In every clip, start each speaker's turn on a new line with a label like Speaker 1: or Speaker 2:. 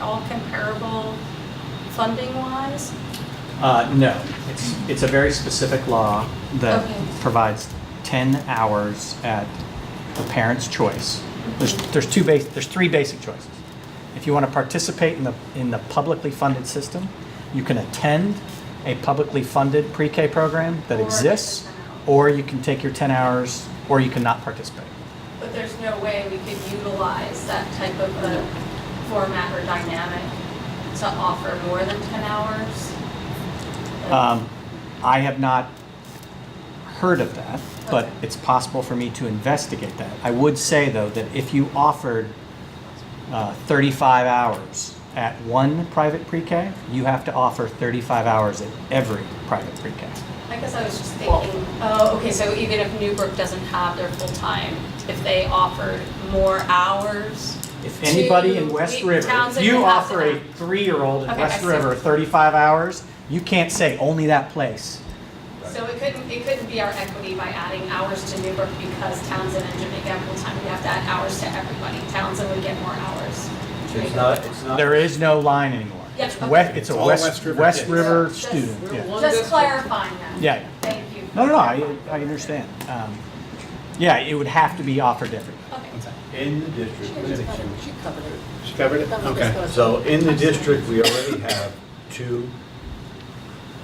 Speaker 1: all comparable funding-wise?
Speaker 2: Uh, no, it's, it's a very specific law that
Speaker 1: Okay.
Speaker 2: provides 10 hours at the parent's choice. There's, there's two base, there's three basic choices. If you want to participate in the, in the publicly funded system, you can attend a publicly funded pre-K program that
Speaker 1: Or
Speaker 2: exists,
Speaker 1: get the 10 hours.
Speaker 2: or you can take your 10 hours, or you cannot participate.
Speaker 1: But there's no way we could utilize that type of a format or dynamic to offer more than 10 hours?
Speaker 2: Um, I have not heard of that, but
Speaker 1: Okay.
Speaker 2: it's possible for me to investigate that. I would say, though, that if you offered uh, 35 hours at one private pre-K, you have to offer 35 hours at every private pre-K.
Speaker 1: I guess I was just thinking, oh, okay, so even if Newbrook doesn't have their full-time, if they offered more hours?
Speaker 2: If anybody in
Speaker 1: to-
Speaker 2: West
Speaker 1: we-
Speaker 2: River, if
Speaker 1: Townsend
Speaker 2: you
Speaker 1: would have to
Speaker 2: offer a
Speaker 1: have-
Speaker 2: three-year-old in
Speaker 1: Okay, I
Speaker 2: West
Speaker 1: see.
Speaker 2: River 35 hours, you can't say only that place.
Speaker 1: So it couldn't, it couldn't be our equity by adding hours to Newbrook because Townsend and Jamaica have full-time, we have to add hours to everybody. Townsend would get more hours.
Speaker 3: It's not, it's not.
Speaker 2: There is no line anymore.
Speaker 1: Yeah,
Speaker 2: It's
Speaker 1: okay.
Speaker 2: we- It's a
Speaker 4: Uh, It's all
Speaker 2: West,
Speaker 4: West River
Speaker 2: West
Speaker 4: kids.
Speaker 2: River
Speaker 1: Just-
Speaker 2: student, yeah.
Speaker 1: Just
Speaker 5: One district.
Speaker 1: clarifying that.
Speaker 2: Yeah.
Speaker 1: Thank you.
Speaker 2: No, no, no, I, I understand. Um, yeah, it would have to be offered differently.
Speaker 1: Okay.
Speaker 3: In the district.
Speaker 5: She covered it.
Speaker 4: She covered it?
Speaker 5: That was
Speaker 4: Okay.
Speaker 5: discussed.
Speaker 3: So in the district, we already have two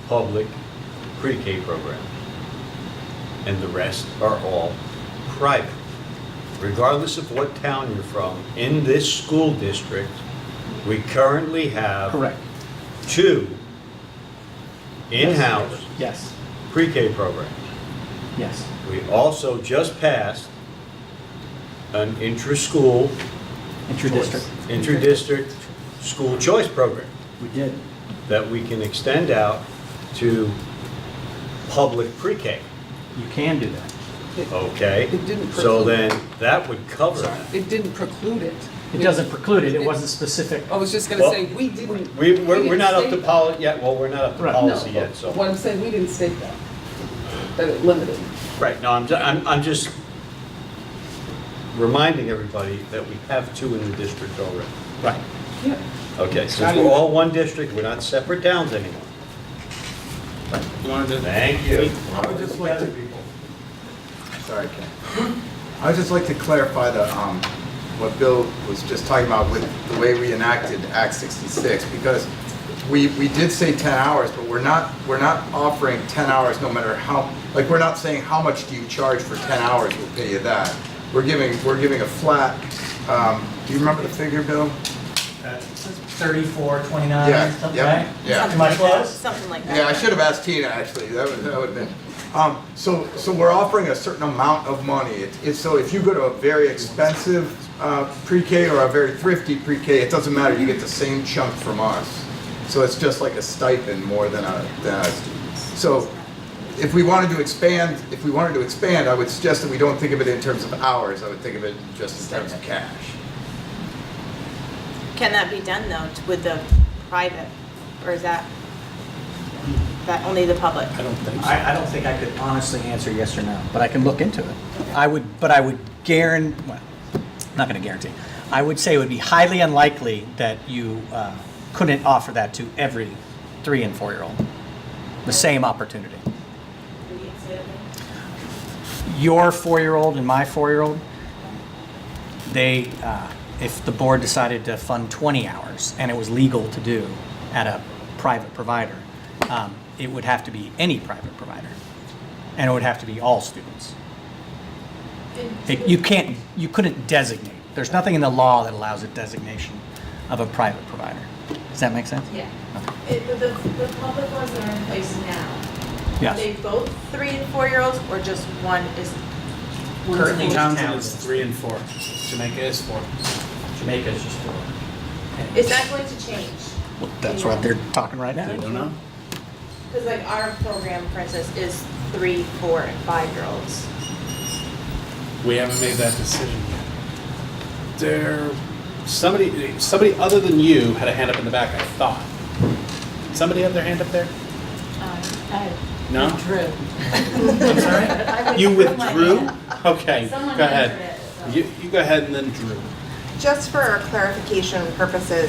Speaker 3: public pre-K programs. And the rest are all private. Regardless of what town you're from, in this school district, we currently have
Speaker 2: Correct,
Speaker 3: two in-house
Speaker 2: yes,
Speaker 3: pre-K programs.
Speaker 2: yes.
Speaker 3: We also just passed an intra-school
Speaker 2: Intra-district.
Speaker 3: inter-district school choice program
Speaker 2: We did.
Speaker 3: that we can extend out to public pre-K,
Speaker 2: You can do that.
Speaker 3: okay?
Speaker 5: It didn't
Speaker 3: So
Speaker 5: preclude-
Speaker 3: then, that would cover that.
Speaker 5: It didn't preclude it.
Speaker 2: It doesn't preclude it, it wasn't specific.
Speaker 5: I was just gonna
Speaker 3: Well,
Speaker 5: say, we didn't.
Speaker 3: We, we're, we're
Speaker 5: didn't
Speaker 3: not up to
Speaker 5: state
Speaker 3: poli, yet, well, we're not up to
Speaker 2: Right.
Speaker 5: that. No,
Speaker 3: policy yet, so.
Speaker 5: What I'm saying, we didn't state that, that it limited.
Speaker 3: Right, no, I'm, ju- I'm, I'm just reminding everybody that we have two in the district already.
Speaker 2: Right.
Speaker 5: Yeah.
Speaker 3: Okay, since we're all one district, we're not separate towns anymore.
Speaker 4: You wanted to-
Speaker 3: Thank you.
Speaker 6: I would just like to. Sorry, Ken. I would just like to clarify the, um, what Bill was just talking about with the way we enacted Act 66, because we, we did say 10 hours, but we're not, we're not offering 10 hours no matter how, like, we're not saying how much do you charge for 10 hours, we'll pay you that. We're giving, we're giving a flat, um, do you remember the figure, Bill?
Speaker 2: Uh, Thirty-four, twenty-nine,
Speaker 6: Yeah,
Speaker 2: something,
Speaker 6: yeah,
Speaker 2: right?
Speaker 6: yeah.
Speaker 2: Am I close?
Speaker 7: Something like that.
Speaker 6: Yeah, I should have asked Tina, actually, that would, that would have been, um, so, so we're offering a certain amount of money. It's, it's, so if you go to a very expensive, uh, pre-K or a very thrifty pre-K, it doesn't matter, you get the same chunk from us. So it's just like a stipend more than a, than a, so if we wanted to expand, if we wanted to expand, I would suggest that we don't think of it in terms of hours, I would think of it just in terms of cash.
Speaker 7: Can that be done though t- with the private, or is that, that only the public?
Speaker 4: I don't think so.
Speaker 2: I, I don't think I could honestly answer yes or no, but I can look into it. I would, but I would guaran, well, not gonna guarantee. I would say it would be highly unlikely that you, uh, couldn't offer that to every three and four-year-old. The same opportunity. your four-year-old and my four-year-old, they, uh, if the board decided to fund 20 hours, and it was legal to do at a private provider, um, it would have to be any private provider, and it would have to be all students. It- You can't, you couldn't designate. There's nothing in the law that allows a designation of a private provider. Does that make sense?
Speaker 8: Yeah. It, the, the the public ones that are in place now, are
Speaker 2: Yes.
Speaker 8: they both
Speaker 7: Three and four-year-olds, or just one is,
Speaker 2: Currently,
Speaker 4: Townsend is three and four. Jamaica is four.
Speaker 2: Jamaica is just four.
Speaker 8: Is that going to change?
Speaker 2: Well, That's what they're talking right
Speaker 4: I
Speaker 2: now.
Speaker 4: don't know.
Speaker 8: Because like our program, for instance, is three, four, and five-year-olds.
Speaker 4: We haven't made that decision yet. There, somebody, somebody other than you had a hand up in the back, I thought. Somebody had their hand up there?
Speaker 8: Uh,
Speaker 4: No?
Speaker 5: True.
Speaker 4: I'm sorry? You withdrew? Okay, go
Speaker 8: Someone
Speaker 4: ahead.
Speaker 8: answered it, so.
Speaker 4: You, you go ahead and then Drew.
Speaker 7: just for clarification purposes,